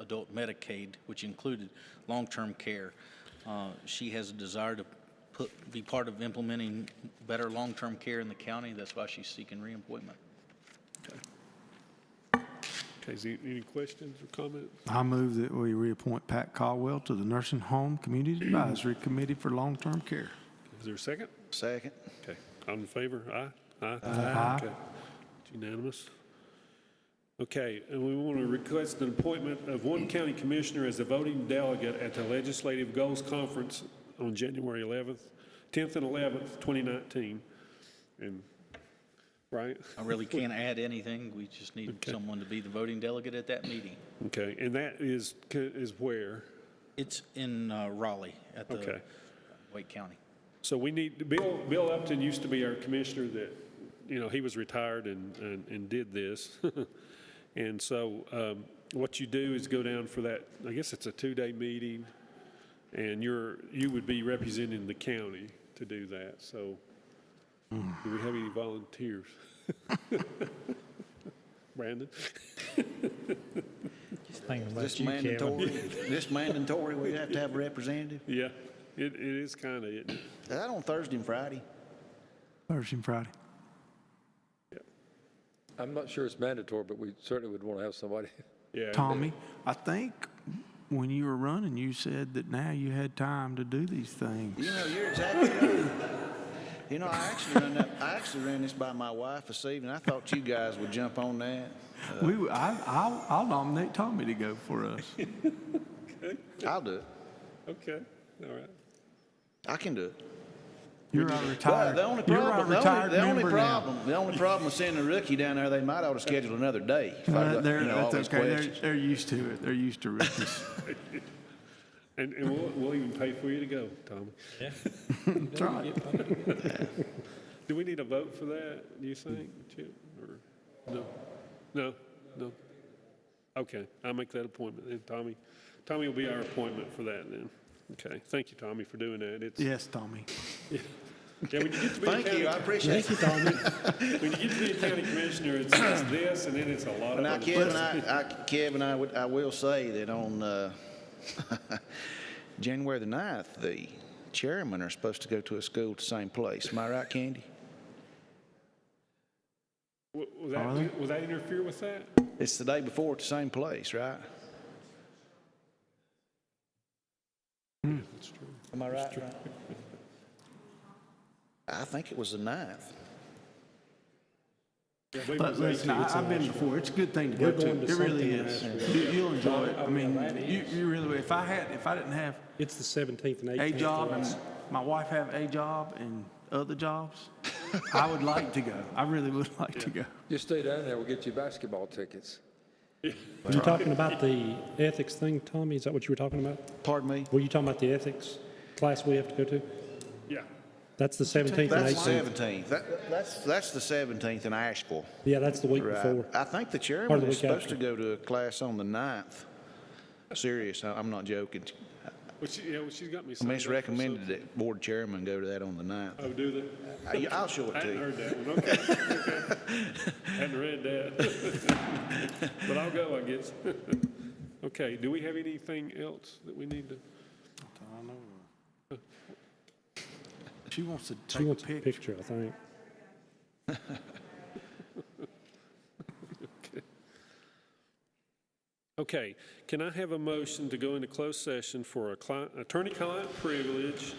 adult Medicaid, which included long-term care. Uh, She has a desire to put, be part of implementing better long-term care in the county. That's why she's seeking reappointment. Okay, is there any questions or comments? I move that we reappoint Pat Caldwell to the Nursing Home Community Advisory Committee for Long-Term Care. Is there a second? Second. Okay, all in favor? Aye? Aye? Aye. Okay. It's Unanimous? Okay, and we want to request an appointment of one county commissioner as a voting delegate at the Legislative Goals Conference on January 11th, 10th and 11th, 2019. And, right? I really can't add anything. We just need Okay. someone to be the voting delegate at that meeting. Okay, and that is, is where? It's in uh, Raleigh at the Okay. Wake County. So we need, Bill, Bill Upton used to be our commissioner that, you know, he was retired and, and, and did this. And so, um, what you do is go down for that, I guess it's a two-day meeting, and you're, you would be representing the county to do that, so. Do we have any volunteers? Brandon? Thinking about This you, Kevin. mandatory, this mandatory, we have to have a representative. Yeah, it, it is kinda, isn't it? Is that on Thursday and Friday? Thursday and Friday. I'm not sure it's mandatory, but we certainly would want to have somebody. yeah. Tommy, I think when you were running, you said that now you had time to do these things. You know, you're exactly right. You know, I actually ran that, I actually ran this by my wife this evening. I thought you guys would jump on that. We, were- I, I'll, I'll nominate Tommy to go for us. I'll do it. Okay, all right. I can do it. You're our But retired, the only you're our problem, the only, retired the only member now. problem, the only problem with sending a rookie down there, they might ought to schedule another day. if I Uh, got, They're, you know, all these that's okay. They're, questions. they're used to it. They're used to rookies. And, and we'll, we'll even pay for you to go, Tommy. That's right. Do we need a vote for that, do you think, Chip, or, no? No, no? Okay, I'll make that appointment then, Tommy. Tommy will be our appointment for that then. Okay, thank you, Tommy, for doing that. It's, yeah, Yes, Tommy. when you get to be a Thank you, I county, appreciate it. when you get to be a county commissioner, it's it's this, and then it's a lot of Now, other Kevin, I, I, Kevin, I would, I will say that on, uh, January the ninth, the chairmen are supposed to go to a school at the same place. Am I right, Candy? Will will that, will that interfere with that? It's the day before at the same place, right? Hmm. That's true. Am I right? Ryan? I think it was the ninth. Yeah, we But was listen, 18, I- so- I've been before. It's a good thing to go to. going to It really something is. You- You'll enjoy it. I mean, you, you really, will. if I had, if I didn't have It's the 17th and 18th. a job for and us. my wife have a job and other jobs, I would like to go. I really would like to go. Just stay down there, we'll get you basketball tickets. Were you talking about the ethics thing, Tommy? Is that what you were talking about? Pardon me? Were you talking about the ethics class we have to go to? Yeah, That's the 17th and That's the 18th. seventeenth. That, that's, that's the seventeenth in Asheville. Yeah, that's the week Right. before. I think the Or chairman the is week supposed to after. go to a class on the ninth. Serious, I- I'm not joking. well, she, yeah, well, she's got me. I mean, signed up it's for recommended something. that board chairman go to that on the ninth. Oh, do they? I- I'll show I it to hadn't you. heard that one, okay, okay. Hadn't read that. But I'll go, I guess. Okay, do we have anything else that we need to? She wants to She take a wants a picture. picture, I think. Okay, can I have a motion to go into closed session for a client, attorney-client privilege,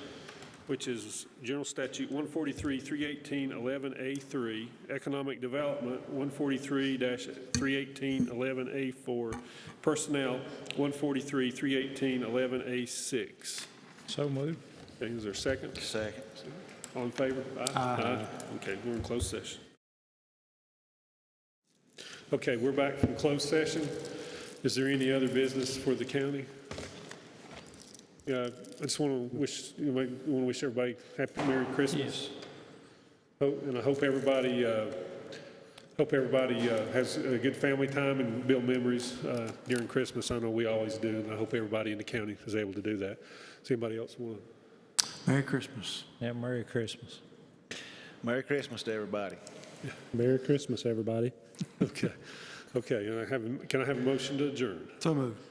which is General Statute 143, 318, 11A3, Economic Development, 143 318, 11A4, Personnel, 143, 318, 11A6. So moved. Okay, is there a second? Second. All in favor? Aye. Okay, we're in closed session. Okay, we're back from closed session. Is there any other business for the county? Yeah, I just want to wish, want to wish everybody happy Merry Christmas. Hope- And I hope everybody, uh, hope everybody uh, has a good family time and build memories uh, during Christmas. I know we always do, and I hope everybody in the county is able to do that. Does anybody else want to? Merry Christmas. Yeah, Merry Christmas. Merry Christmas to everybody. Merry Christmas, everybody. Okay, okay, and I have, can I have a motion to adjourn? So moved.